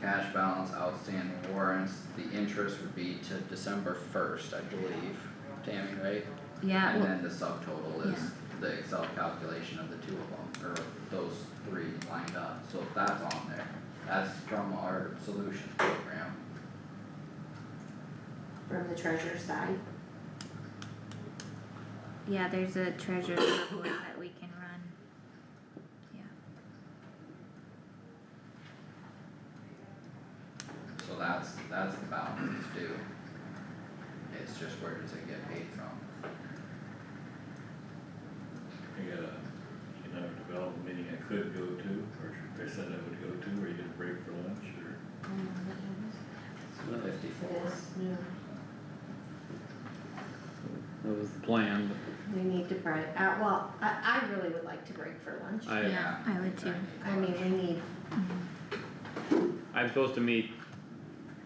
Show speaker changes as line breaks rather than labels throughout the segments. cash balance outstanding warrants, the interest would be to December first, I believe, Tammy, right?
Yeah,
And
well,
then the subtotal is the Excel calculation of the two of them, or those three lined up, so that's on there, that's from our solutions program.
from the treasurer's side.
yeah, there's a treasurer's report that we can run.
So that's, that's the balance it's due. It's just where does it get paid from?
I got a, economic development meeting I could go to, or they said I would go to, or you get a break for lunch, or.
Fifty-four.
no,
That was the plan,
we need to break, uh, well, I, I really would like to break for lunch.
but I,
I would too.
I mean, we need,
I'm supposed to meet,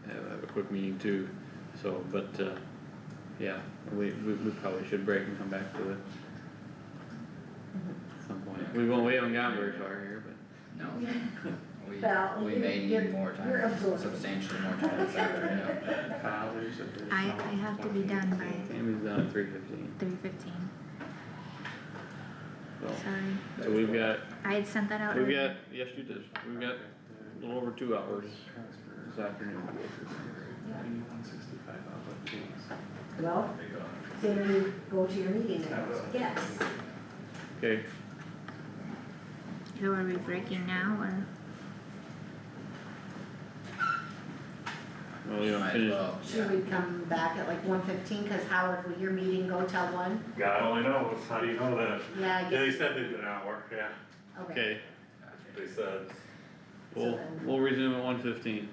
have have a quick meeting too, so, but, uh, yeah, we, we, we probably should break and come back to it. At some point, we won't, we haven't gotten very far here, but,
No,
Val,
we, we may
you're-
need more
you're
time,
absorbing.
substantially more time this afternoon.
I, I have to be done by
Tammy's done at three fifteen,
three fifteen,
so,
sorry,
so we've got,
I had sent that out.
we've got,
earlier.
yes, you did, we've got a little over two hours this afternoon.
well,
They go,
then you go to your meeting then. Yes,
Okay,
So are we breaking now or?
well, you don't
Might as
finish,
well,
should we come back at like one fifteen, cause Howard, will your meeting go till one?
God only knows, how do you know that?
Yeah, I
Yeah,
guess,
they said they did an hour, yeah,
okay.
okay,
yeah.
they said,
we'll,
then-
we'll resume at one fifteen.